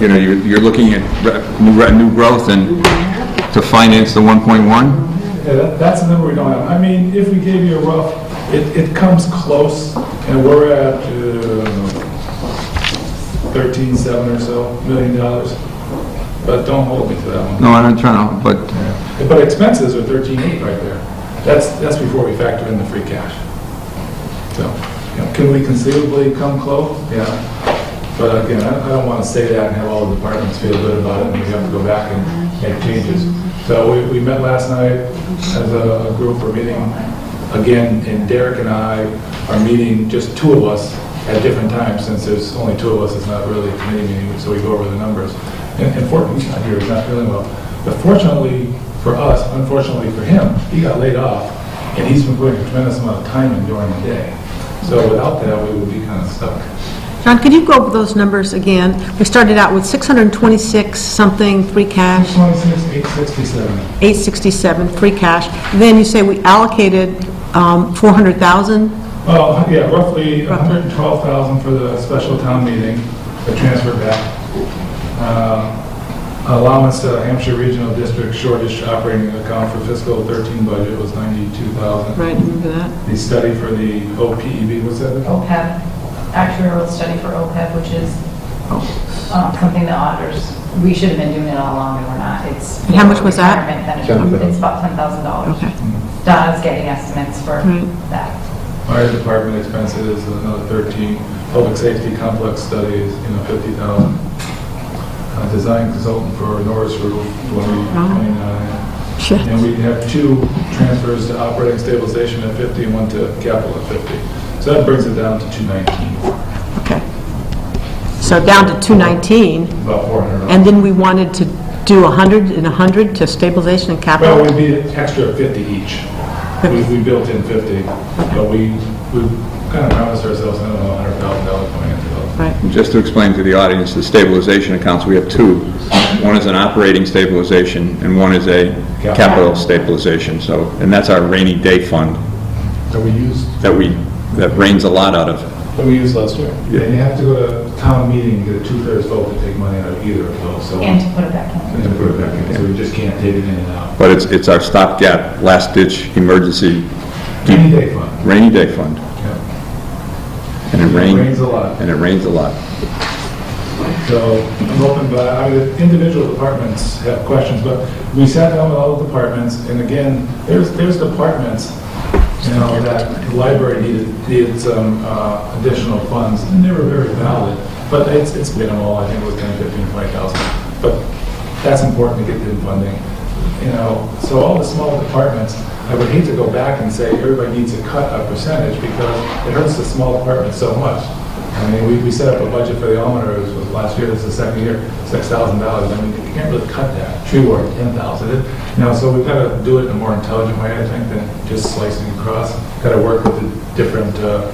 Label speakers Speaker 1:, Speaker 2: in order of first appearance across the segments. Speaker 1: you know, you're, you're looking at re- new, re- new growth and to finance the 1.1?
Speaker 2: Yeah, that- that's the number we don't have. I mean, if we gave you a rough, it, it comes close, and we're at uh, thirteen seven or so million dollars, but don't hold me to that one.
Speaker 1: No, I'm not trying to, but
Speaker 2: But expenses are thirteen eight right there. That's, that's before we factor in the free cash. So, you know, can we conceivably come close? Yeah. But again, I I don't want to say that and have all the departments feel good about it and we have to go back and make changes. So we, we met last night as a a group, we're meeting again, and Derek and I are meeting, just two of us, at different times, since there's only two of us, it's not really a committee meeting, so we go over the numbers. And and Fortune's not here, he's not feeling well. But fortunately for us, unfortunately for him, he got laid off, and he's been putting a tremendous amount of time in during the day. So without that, we would be kind of stuck.
Speaker 3: John, could you go over those numbers again? We started out with 626 something free cash,
Speaker 2: 26,867.
Speaker 3: 867 free cash, then you say we allocated um, 400,000?
Speaker 2: Well, Oh, yeah, roughly 112,000 for the special town meeting, the transfer back. Um, Allowance to Hampshire Regional District shortage operating account for fiscal 13 budget was 92,000.
Speaker 3: Right, remember that?
Speaker 2: The study for the OPEB, what's that called?
Speaker 4: OPEB, E actuarial study for OPEB, which is
Speaker 3: Oh.
Speaker 4: uh, something the auditors, we should have been doing it all along, and we're not. It's.
Speaker 3: And how much was that?
Speaker 4: retirement benefit. It's about $10,000.
Speaker 3: Okay.
Speaker 2: Hmm.
Speaker 4: Donna's getting estimates for
Speaker 3: Right.
Speaker 4: that.
Speaker 2: Fire department expenses, another 13. Public safety complex studies, you know, 50,000. Uh, Design consultant for Norris Roof, 29.
Speaker 3: Shit.
Speaker 2: And we have two transfers to operating stabilization at 50 and one to capital at 50. So that brings it down to 219,
Speaker 3: Okay. So down to 219,
Speaker 2: about 400.
Speaker 3: and then we wanted to do 100 and 100 to stabilization and capital?
Speaker 2: Well, we'd be an extra 50 each. We- We built in 50, but we, we kind of promised ourselves, I don't know, $100,000 coming into those.
Speaker 3: Right.
Speaker 1: just to explain to the audience, the stabilization accounts, we have two. One is an operating stabilization and one is a capital stabilization, so, and that's our rainy day fund
Speaker 2: That we used,
Speaker 1: that we, that rains a lot out of.
Speaker 2: that we used last year. Yeah, you have to go to town meeting, to get a two-thirds vote to take money out of either of those, so.
Speaker 4: And to put it back in.
Speaker 2: And to put it back in, so we just can't take it in and out.
Speaker 1: But it's, it's our stopgap, last-ditch emergency
Speaker 2: Any day fund,
Speaker 1: rainy day fund.
Speaker 2: yeah.
Speaker 1: And it rained.
Speaker 2: Rains a lot.
Speaker 1: And it rains a lot.
Speaker 2: So I'm open, but I mean, individual departments have questions, but we sat down with all the departments, and again, there's, there's departments, you know, that the library needed, needed some uh, additional funds, and they were very valid, but it's, it's minimal, I think it was 10, 15, 20,000. But that's important to get the funding, you know, so all the small departments, I would hate to go back and say, everybody needs to cut a percentage, because it hurts the small departments so much. I mean, we, we set up a budget for the almoners, it was last year, this is the second year, six thousand dollars, I mean, you can't really cut that, tree ward, ten thousand, you know, so we've gotta do it in a more intelligent way, I think, than just slicing across, gotta work with the different, uh,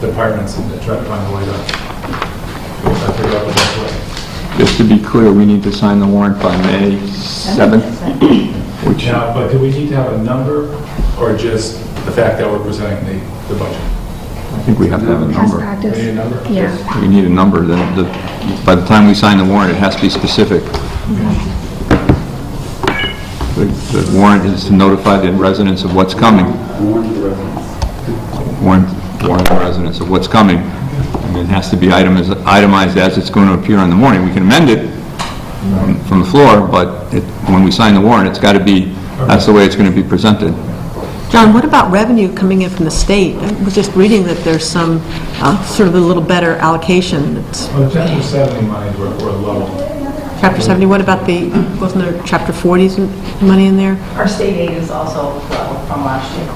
Speaker 2: departments and try to find a way to, to figure out the best way.
Speaker 1: Just to be clear, we need to sign the warrant by May 7th, which,
Speaker 2: Now, but do we need to have a number, or just the fact that we're presenting the, the budget?
Speaker 1: I think we have to have a
Speaker 5: Past
Speaker 1: number.
Speaker 2: We need a
Speaker 5: practice,
Speaker 2: number?
Speaker 5: yeah.
Speaker 1: We need a number, then, the- by the time we sign the warrant, it has to be specific. The the warrant is to notify the residents of what's coming. Warn, warn the residents of what's coming. And it has to be itemized, itemized as it's going to appear on the morning. We can amend it um, from the floor, but it, when we sign the warrant, it's got to be, that's the way it's going to be presented.
Speaker 3: John, what about revenue coming in from the state? I was just reading that there's some uh, sort of a little better allocation. It's
Speaker 2: Well, the chapter seventy money, we're, we're low.
Speaker 3: Chapter 70, what about the, wasn't there Chapter 40's money in there?
Speaker 4: Our state aid is also low from last year.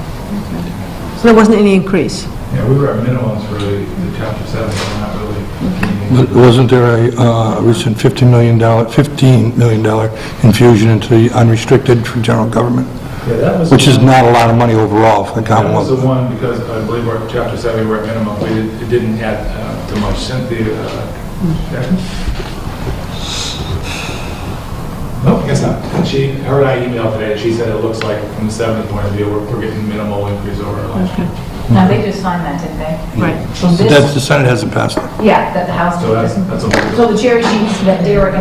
Speaker 3: So there wasn't any increase?
Speaker 2: Yeah, we were at minimums for the the chapter seven, we're not really.
Speaker 6: But Wasn't there a uh, recent $15 million, $15 million infusion into the unrestricted for general government,
Speaker 2: Yeah, that was.
Speaker 6: which is not a lot of money overall for the
Speaker 2: That was the
Speaker 6: Commonwealth?
Speaker 2: one, because I believe we're at chapter seven, we're at minimum, we did- it didn't add uh, too much. Cynthia, uh, Jackson? No, I guess not. She, her and I emailed today, and she said it looks like from the seventh point of view, we're, we're getting minimal increase over last year.
Speaker 4: Now, they just signed that, didn't they?
Speaker 3: Right.
Speaker 4: So
Speaker 6: That's,
Speaker 4: this,
Speaker 6: the Senate hasn't passed it.
Speaker 4: yeah, that the House,
Speaker 2: So that's, that's a.
Speaker 4: so the cherry sheets that Derek and